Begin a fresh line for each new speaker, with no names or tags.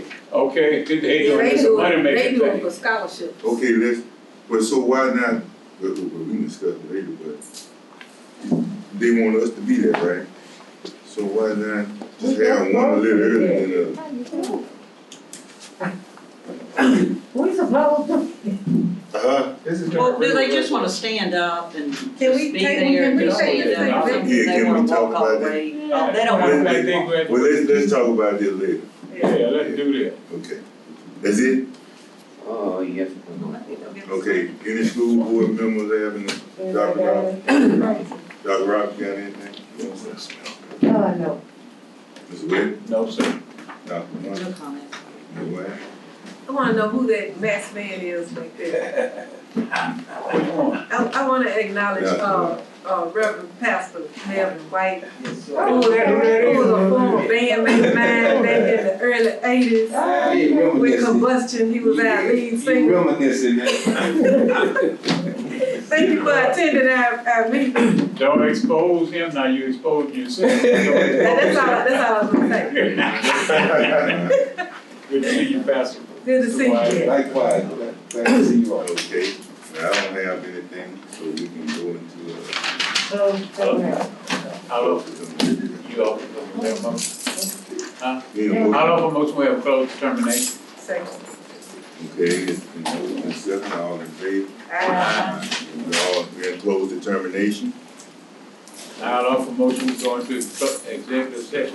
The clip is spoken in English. Okay, fifty-eight don't,
Ray
it's a
doing,
money
Ray
making
doing
thing.
for scholarships.
Okay, let's, but so why not, but, but we can discuss it later, but they want us to be there, right? So why not just have one a little earlier than the other?
We supposed to,
Uh-huh,
This is.
Well, do they just wanna stand up and just
Can we
be
take-
there
can
and
we
just
take
leave
this thing
them?
back?
Yeah,
They
can
wanna
we talk
walk all
about
the
that?
way.
Yeah.
They don't
I
wanna.
think they graduate.
well, let's, let's talk about this later,
Yeah, let's do that.
okay? That's it?
Oh, yes, I know.
Okay, any school board members having, Dr. Rock, Dr. Rock, you got anything? No, sir.
oh, no.
Ms. Wade?
No, sir.
Dr. Mark?
No comments.
Ms. Wade?
I wanna know who that masked man is right there. I, I wanna acknowledge,
Yeah.
uh, uh, Reverend Pastor Melvin White. Who was
Oh, that, that
who was
is.
a former bandmate of mine back in the early eighties.
Oh,
With combustion, he was our lead singer.
Reminiscing,
Thank you for attending our, our meeting. And
Don't expose him, now you expose yourself.
that's all, that's all I was gonna say.
Good to see you, Pastor.
Good to see you.
Likewise, glad to see you all.
Okay, I don't have anything, so we can go into, uh,
So, so, now.
How long, you open, we have a motion,
Need a motion?
how long for motion we have closed determination?
Second.
Okay, it's been moved and seconded, all in favor?
Aye.
We all, we're in close determination.
How long for motion we go into executive session?